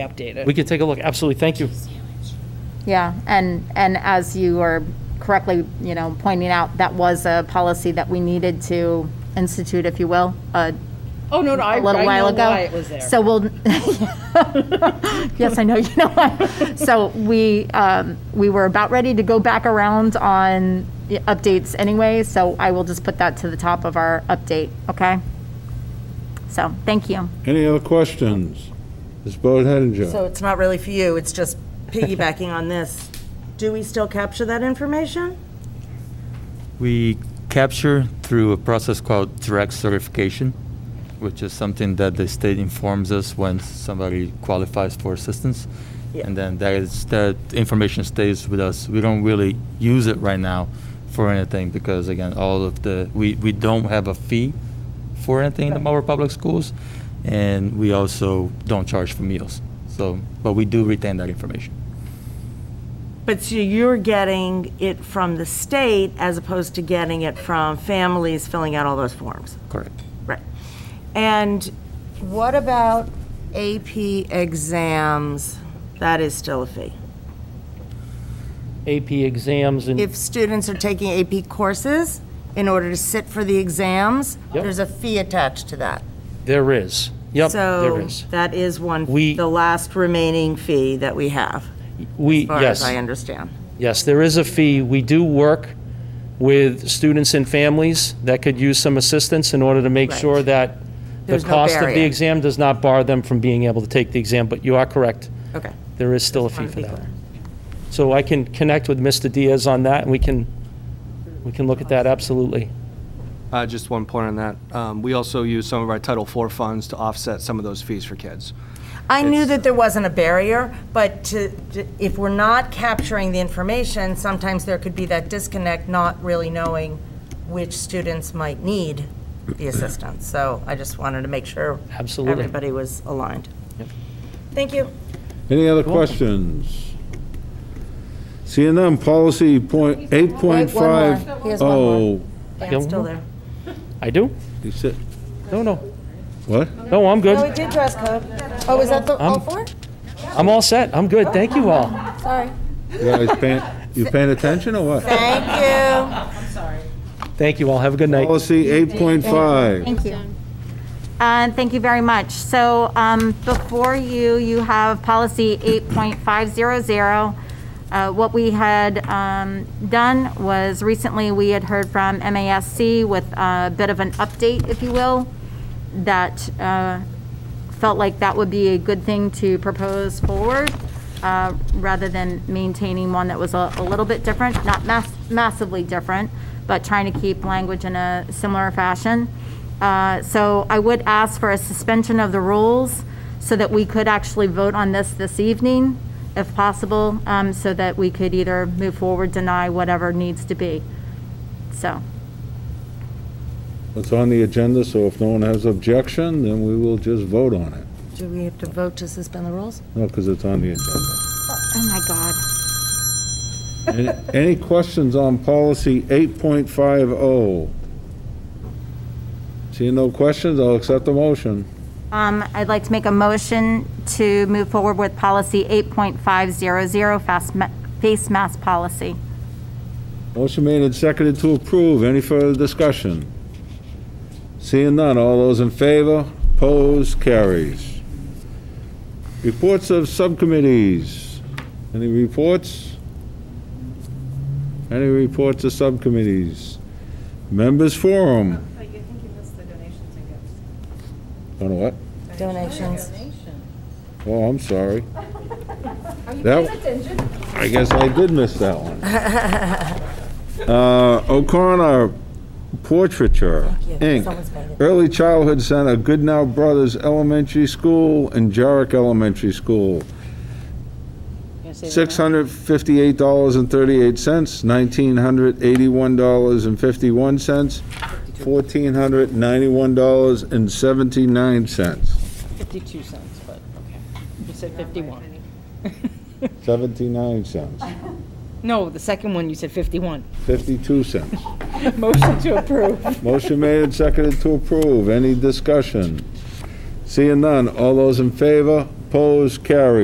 update We it. could take a look, absolutely, thank you. Yeah, and, and as you are correctly, you know, pointing out, that was a policy that we needed to institute, if you will, a Oh, no, no, I, a little I while know ago. why it was there. So we'll, yes, I know, you know why. So we, um, we were about ready to go back around on the updates anyway, so I will just put that to the top of our update, okay? So, thank you. Any other questions? Ms. Bode So Hedinger? it's not really for you, it's just piggybacking on this. Do we still capture that information? We capture through a process called direct certification, which is something that the state informs us when somebody qualifies for assistance. Yeah. And then that is, that information stays with us. We don't really use it right now for anything because again, all of the, we, we don't have a fee for anything in the Marlboro Public Schools. And we also don't charge for meals. So, but we do retain that information. But so you're getting it from the state as opposed to getting it from families filling out all those forms? Correct. Right. And what about AP exams? That is still a fee. AP exams and, If students are taking AP courses in order to sit for the exams, Yep. there's a fee attached to that. there is, yep, there is. So that is one, We- the last remaining fee that we have, We, as far as I yes, understand. yes, there is a fee. We do work with students and families that could use some assistance in order to make Right. sure that the There's no cost of the barrier. exam does not bar them from being able to take the exam, but you are correct. Okay. There is still a fee wanted to for be that. clear. So I can connect with Mr. Diaz on that, and we can, we can look at that, absolutely. Uh, Just one point on that. Um, We also use some of our Title IV funds to offset some of those fees for kids. I knew that there wasn't a barrier, but to, to- if we're not capturing the information, sometimes there could be that disconnect, not really knowing which students might need the assistance. So I just wanted to make sure Absolutely. everybody was aligned. Thank you. Any other questions? Seeing none, policy point, Wait, 8.5. one more. He has one Oh, Dan's still there. I do? you said, No, no. what? No, I'm Oh, we good. did dress code. Oh, was that the, all four? I'm all set. I'm good. Thank you all. You guys paying, you paying attention or what? Thank you. Thank you all. Have a good night. Policy 8.5. Thank you. And Uh, thank you very much. So um, before you, you have policy 8.500. Uh, What we had um, done was recently, we had heard from MASC with a bit of an update, if you will, that uh, felt like that would be a good thing to propose forward, uh, rather than maintaining one that was a a little bit different, not mass- massively different, but trying to keep language in a similar fashion. Uh, So I would ask for a suspension of the rules so that we could actually vote on this this evening, if possible, um, so that we could either move forward, deny, whatever needs to be. So, It's on the agenda, so if no one has objection, then we will just vote on it. Do we have to vote to suspend the rules? No, because it's on the agenda. oh my God. Any- Any questions on policy 8.50? oh? Seeing no questions, I'll accept the motion. Um, I'd like to make a motion to move forward with policy 8.500, fast ma- face mask policy. Motion made and seconded to approve. Any further discussion? Seeing none, all those in favor? Opposed? Carries. Reports of subcommittees. Any reports? Any reports of subcommittees? Members forum. I think Oh, you missed the donations and gifts. On what? Donations. Oh, I'm sorry. That- I guess I did miss that one. Uh, O'Connor Portraiture, Someone's made Inc., it. Early Childhood Center, Goodnow Brothers Elementary School and Jarrick Elementary School. Six hundred fifty-eight dollars and thirty-eight cents, nineteen hundred eighty-one dollars and fifty-one cents, fourteen hundred ninety-one dollars and seventy-nine cents. 52 cents, but, okay. You said 51. Seventy-nine cents, No, the second one, you said 51. fifty-two cents. Motion to approve. Motion made and seconded to approve. Any discussion? Seeing none. All those in favor? Opposed? Carried.